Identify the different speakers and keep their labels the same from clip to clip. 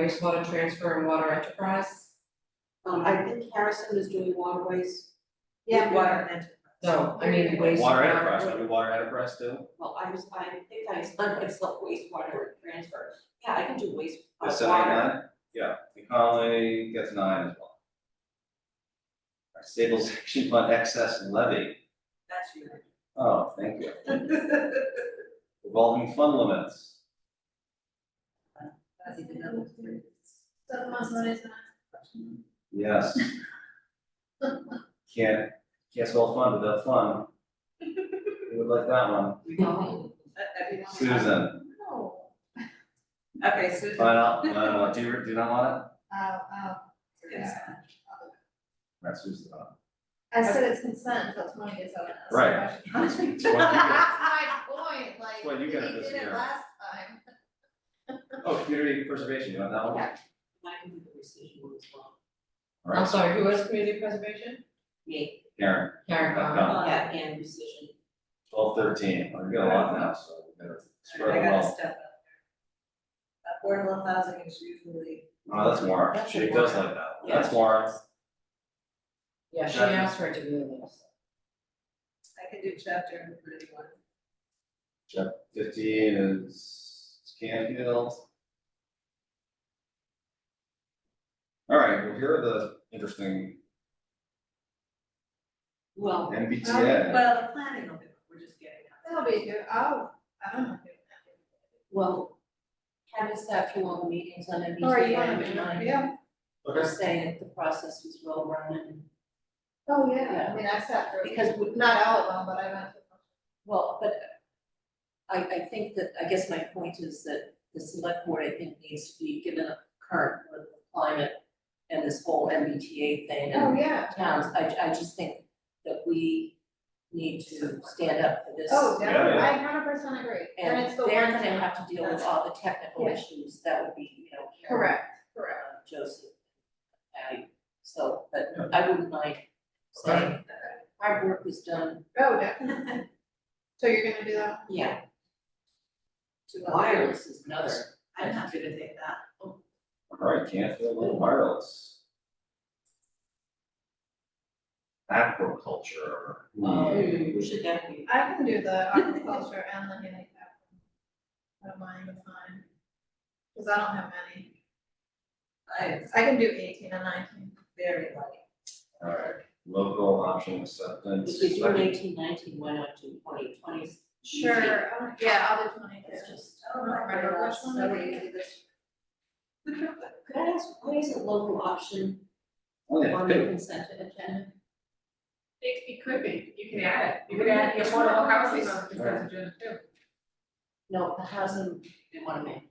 Speaker 1: wastewater transfer and water enterprise?
Speaker 2: Um, I think Harrison is doing waterways. with
Speaker 3: Yeah.
Speaker 2: Water and,
Speaker 1: No, I mean wastewater.
Speaker 4: Water enterprise, I mean, water enterprise too,
Speaker 2: well, I was, I think I slept, I slept wastewater transfer. Yeah, I can do waste, uh,
Speaker 4: that's seven, eight,
Speaker 2: water.
Speaker 4: nine, yeah, the Conley gets nine as well. Our stabilization fund excess and levy,
Speaker 2: That's your.
Speaker 4: oh, thank you, revolving fund limits,
Speaker 2: That's even another three.
Speaker 3: So the most one is not.
Speaker 4: yes. Can't, can't spell fund without fun. Who would like that one?
Speaker 2: No.
Speaker 4: Susan,
Speaker 3: No.
Speaker 2: Okay, so.
Speaker 4: find out, I don't want, do you, do you not want
Speaker 3: Oh, oh.
Speaker 4: it? Right, Susan's not.
Speaker 3: I said it's consent until twenty years old. That's the
Speaker 4: Right.
Speaker 3: question.
Speaker 4: That's what you get.
Speaker 3: That's my point, like,
Speaker 4: Well,
Speaker 3: we
Speaker 4: you got
Speaker 3: did
Speaker 4: this
Speaker 3: it
Speaker 4: year.
Speaker 3: last time.
Speaker 4: Oh, community preservation, you want that one?
Speaker 2: Yeah. I can do the rescission one as well.
Speaker 4: All
Speaker 1: I'm
Speaker 4: right,
Speaker 1: sorry, who was community preservation?
Speaker 2: Yeah.
Speaker 4: Karen,
Speaker 1: Karen Bauer.
Speaker 4: Okay.
Speaker 2: Uh, yeah, and rescission.
Speaker 4: twelve, thirteen, I've got a lot now, so we better spread
Speaker 5: I
Speaker 4: them
Speaker 5: gotta
Speaker 4: out.
Speaker 5: step up. Affordable housing is usually,
Speaker 4: Oh, that's Warren,
Speaker 2: That's
Speaker 4: she
Speaker 2: a
Speaker 4: does
Speaker 2: Warren.
Speaker 4: like that,
Speaker 2: Yeah.
Speaker 4: that's Warren.
Speaker 1: Yeah, she
Speaker 4: Definitely.
Speaker 1: asked her to do this.
Speaker 5: I can do chapter and pretty one.
Speaker 4: Fifteen is Canfield. All right, well, here are the interesting
Speaker 2: Well, Um,
Speaker 4: MBTA,
Speaker 5: Well, the planning of it, we're just getting out.
Speaker 3: That'll be good, oh, I don't know.
Speaker 2: well, Kevin sat through all the meetings on MBTA.
Speaker 3: Or you wanna
Speaker 2: and I
Speaker 3: do, yeah,
Speaker 2: was
Speaker 4: okay,
Speaker 2: saying the process was well run and,
Speaker 3: oh, yeah,
Speaker 2: Yeah.
Speaker 3: I mean, I sat through,
Speaker 2: because we,
Speaker 3: not all of them, but I went through.
Speaker 2: well, but I, I think that, I guess my point is that the select board, I think, needs to be given a current political climate and this whole MBTA thing
Speaker 3: Oh,
Speaker 2: and
Speaker 3: yeah,
Speaker 2: towns, I, I just think that we need to stand up for this.
Speaker 3: oh, definitely,
Speaker 4: yeah.
Speaker 3: I hundred percent agree, and
Speaker 2: And
Speaker 3: it's the one
Speaker 2: they're
Speaker 3: thing-
Speaker 2: gonna have to deal with all the technical
Speaker 3: Yeah.
Speaker 2: issues, that would be, you know, Karen
Speaker 3: Correct, correct.
Speaker 2: uh, Joseph, Patty, so, but I wouldn't mind saying that hard work was done,
Speaker 3: Oh, definitely. So you're gonna do that?
Speaker 2: yeah,
Speaker 5: to a-
Speaker 2: wireless is another.
Speaker 5: I'm happy to take that.
Speaker 4: all right, Canfield, Little Wireless. Aquaculture,
Speaker 2: Um,
Speaker 4: hmm,
Speaker 2: we should definitely,
Speaker 3: I can do the aquaculture and the handicap. I don't mind, it's fine. Cause I don't have many.
Speaker 5: I'm
Speaker 3: I can do eighteen and nineteen.
Speaker 5: very light.
Speaker 4: all right, local option acceptance.
Speaker 2: if we do eighteen nineteen, why not do twenty twenties?
Speaker 3: I'll- Yeah, I'll do twenty
Speaker 2: It's just,
Speaker 5: I don't
Speaker 3: know, I don't know which one that we
Speaker 2: could I ask, why is it local option
Speaker 4: Oh, yeah,
Speaker 2: on the
Speaker 4: pick-
Speaker 2: consent agenda?
Speaker 6: It, it could be, you can add it, you could add the affordable housing on the
Speaker 4: Right.
Speaker 6: consent agenda too.
Speaker 2: No, the housing, they wanna make.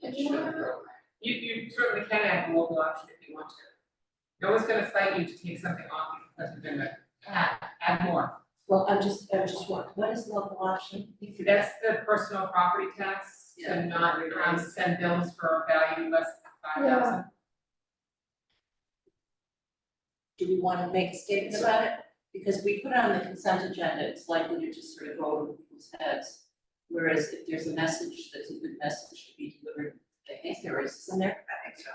Speaker 3: Did you want to?
Speaker 6: You, you certainly can add a local option if you want to. No one's gonna cite you to take something off the consent agenda, add, add more.
Speaker 2: Well, I'm just, I'm just, wa- what is local option?
Speaker 6: That's the personal property tax,
Speaker 5: Yeah.
Speaker 6: to not, um, send bills for a value less than five thousand.
Speaker 2: do we wanna make a statement about it? Because we put it on the consent agenda, it's likely to just sort of go over people's heads. Whereas if there's a message, that's a good message to be delivered, I think there is, isn't there?
Speaker 5: I think so.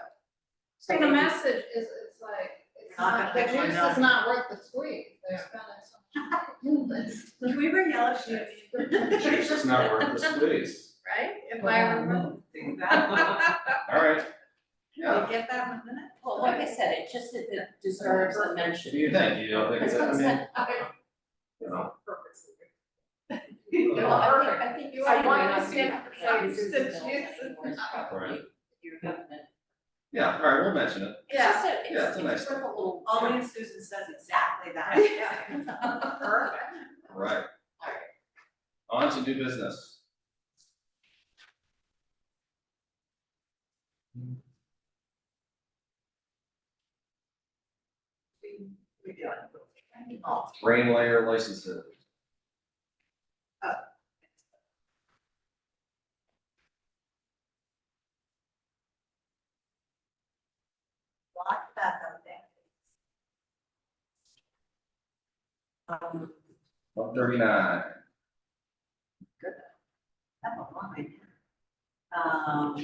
Speaker 2: So
Speaker 3: the
Speaker 2: maybe-
Speaker 3: message is, it's like, it's
Speaker 5: Not
Speaker 3: not, the
Speaker 5: gonna make
Speaker 3: juice
Speaker 5: one
Speaker 3: is not worth the squeeze, they're spending so much.
Speaker 5: Can we bring yellow shoes?
Speaker 4: It's just not worth the squeeze,
Speaker 3: Right? If I
Speaker 2: Well,
Speaker 3: remember.
Speaker 2: no.
Speaker 5: Think that.
Speaker 4: all right, yeah.
Speaker 5: We'll get that in a minute.
Speaker 2: Well, like I said, it just, it it deserves a
Speaker 4: What
Speaker 2: mention.
Speaker 4: do you think, you don't think
Speaker 2: It's
Speaker 4: that, I mean,
Speaker 2: consent, okay.
Speaker 4: you know,
Speaker 2: No, I think, I think you
Speaker 6: I
Speaker 2: are.
Speaker 6: want to
Speaker 2: right.
Speaker 6: see it.
Speaker 2: Yeah,
Speaker 6: It's
Speaker 2: it's
Speaker 6: the
Speaker 2: just-
Speaker 6: juice.
Speaker 2: it's probably Your government.
Speaker 4: yeah, all right, we'll mention it.
Speaker 2: It's just a,
Speaker 4: Yeah, it's
Speaker 2: it's,
Speaker 4: a
Speaker 2: it's
Speaker 4: nice
Speaker 2: sort of a little.
Speaker 5: Only if Susan says exactly that.
Speaker 6: Perfect.
Speaker 4: All Right. On to new business.
Speaker 5: We do it. Oh,
Speaker 4: Rain layer licenses.
Speaker 5: Lock that up there. Um,
Speaker 4: One thirty-nine.
Speaker 5: I'm a woman.
Speaker 2: Um,